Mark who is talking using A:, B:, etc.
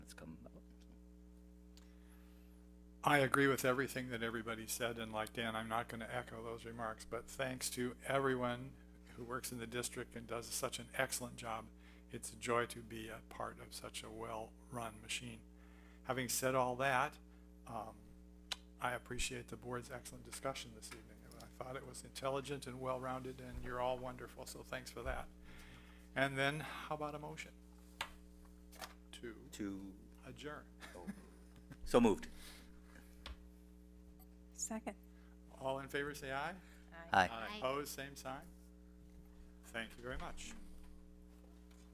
A: I agree with everything that everybody said, and like Dan, I'm not gonna echo those remarks, but thanks to everyone who works in the district and does such an excellent job. It's a joy to be a part of such a well-run machine. Having said all that, um, I appreciate the board's excellent discussion this evening. I thought it was intelligent and well-rounded, and you're all wonderful, so thanks for that. And then, how about a motion? To
B: to,
A: adjourn.
B: so moved.
C: Second.
A: All in favor, say aye.
B: Aye.
A: Opposed, same sign. Thank you very much.